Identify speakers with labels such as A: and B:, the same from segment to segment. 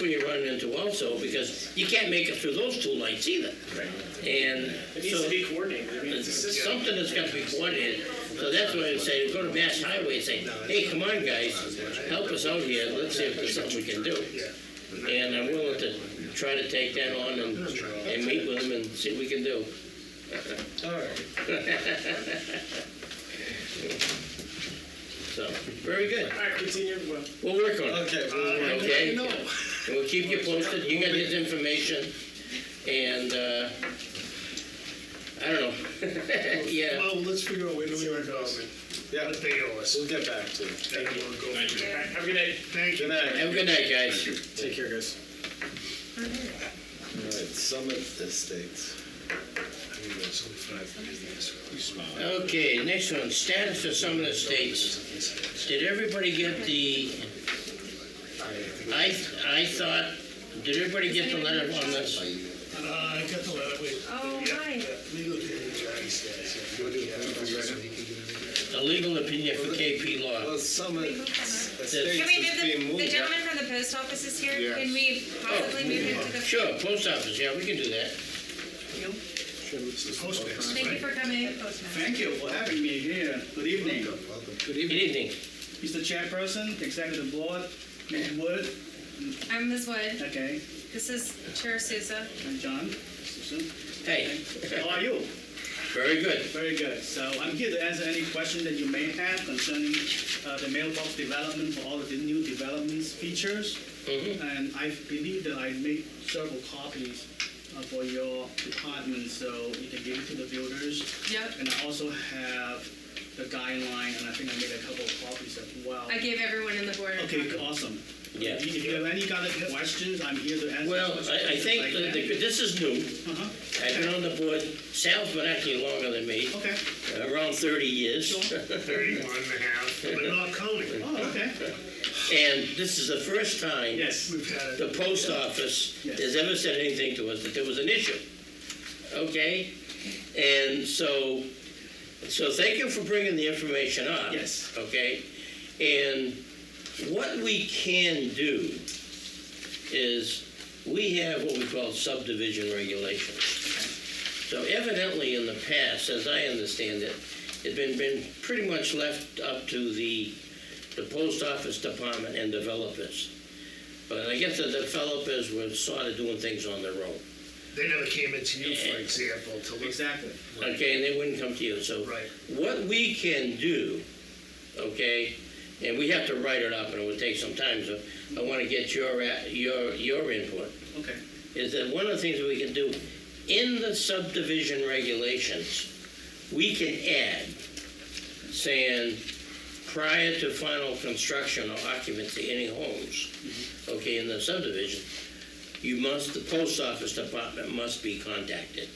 A: what you're running into also, because you can't make it through those two lights either. And
B: It needs to
A: so,
B: be coordinated. I mean, it's a
A: it's
B: system.
A: something that's got to be coordinated, so that's why I say, go to Mass Highway and say, hey, come on, guys, help us out here, let's see if there's something we can do. And I'm willing to try to take that on and, and meet with them and see what we can do. So, very good,
B: All right, continue. Well,
A: we'll work on it.
C: Okay, well, we're-
A: Okay? And we'll keep you posted, you got his information, and, uh, I don't know. Yeah,
D: Well, let's figure out where do we
B: Zero
D: want to go.
B: development.
C: yeah,
D: What they owe us.
C: we'll get back to it.
D: They will go.
B: All right, have a good night.
D: Thank
C: Good
D: you.
C: night.
A: have a good night, guys.
C: Take care, guys. All right, Summit Estates.
D: I mean, it's only five minutes.
A: Okay, next one, status of some of the states. Did everybody get the, I, I thought, did everybody get the letter on this?
D: Uh, I got the letter, wait.
E: Oh,
D: Yeah,
E: hi.
D: yeah, Legal opinion, Johnny says. yeah.
A: The legal opinion for KP Law.
C: Well, Summit
E: Can
C: Estates
E: we
C: is being
E: do the, the
C: moved.
E: gentleman from the post office is here? Can we possibly move him to the?
A: Sure, post office, yeah, we can do that.
D: It's the postmaster,
E: Thank you
D: right?
E: for coming, Postmaster.
F: Thank you for having me here. Good evening.
A: Good evening.
F: Mr. Chairperson, Executive Board, Ms. Wood,
E: I'm Ms. Wood.
F: okay,
E: This is Chair Souza.
F: and John, Susan.
A: Hey,
F: How are you?
A: very good.
F: Very good. So I'm here to answer any question that you may have concerning uh, the mailbox development for all of the new developments features. And I believe that I made several copies uh, for your department, so you can give it to the builders.
E: Yep.
F: And I also have the guideline, and I think I made a couple of copies as well.
E: I gave everyone in the board. a
F: Okay,
E: copy.
F: awesome.
A: Yeah.
F: If you- if you have any kind of questions, I'm here to answer.
A: Well, I, I think that
F: questions.
A: the- this is new.
F: Uh-huh.
A: I've been on the board, Sal's been actually longer than me,
F: Okay.
A: around 30 years.
D: Thirty-one and a half, but not counting.
F: Oh, okay.
A: And this is the first time
F: Yes.
D: We've had
A: the
D: it.
A: post office
F: Yes.
A: has ever said anything to us that there was an issue. Okay? And so, so thank you for bringing the information up.
F: Yes.
A: Okay? And what we can do is, we have what we call subdivision regulations. So evidently, in the past, as I understand it, it's been, been pretty much left up to the, the post office department and developers. But I guess the developers were sort of doing things on their own.
D: They never came into you, for example, to look.
F: Exactly.
A: Okay, and they wouldn't come to you, so.
D: Right.
A: What we can do, okay, and we have to write it up and it would take some time, so I wanna get your, a- your, your input,
F: Okay.
A: is that one of the things that we can do, in the subdivision regulations, we can add saying prior to final construction or occupancy any homes, okay, in the subdivision, you must, the post office department must be contacted,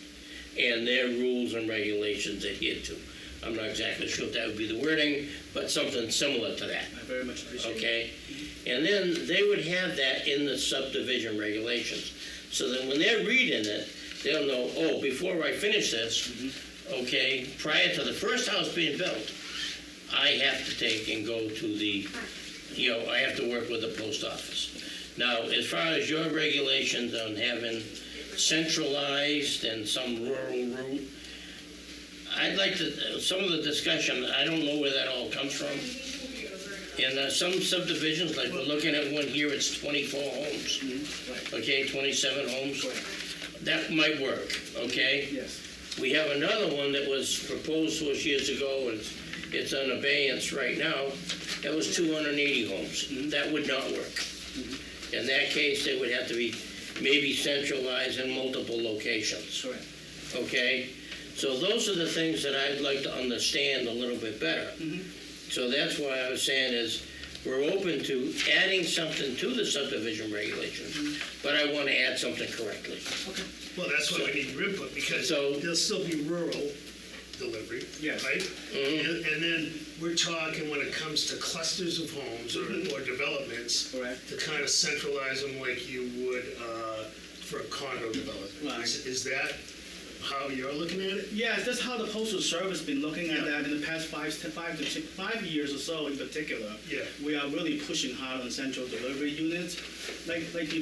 A: and their rules and regulations adhered to. I'm not exactly sure if that would be the wording, but something similar to that
F: I very much appreciate it.
A: okay? And then they would have that in the subdivision regulations, so that when they're reading it, they'll know, oh, before I finish this, okay, prior to the first house being built, I have to take and go to the, you know, I have to work with the post office. Now, as far as your regulations on having centralized and some rural route, I'd like to, some of the discussion, I don't know where that all comes from. And uh, some subdivisions, like we're looking at one here, it's 24 homes, okay, 27 homes. That might work, okay?
F: Yes.
A: We have another one that was proposed to us years ago, and it's- it's on abeyance right now. That was 280 homes. That would not work. In that case, they would have to be maybe centralized in multiple locations,
F: Sure.
A: okay? So those are the things that I'd like to understand a little bit better. So that's why I was saying is, we're open to adding something to the subdivision regulations, but I want to add something correctly.
D: Well, that's why we need your input, because
A: So-
D: there'll still be rural delivery,
F: Yes. Mm-hmm.
D: right? And and then we're talking when it comes to clusters of homes or, or developments.
F: Mm-hmm. Correct.
D: To kind of centralize them like you would, uh, for a condo development.
F: Right.
D: Is, is that how you're looking at it?
F: Yes, that's how the postal service been looking at
D: Yeah.
F: that in the past five, ten, five to ti- five years or so in particular.
D: Yeah.
F: We are really pushing hard on central delivery units. Like, like you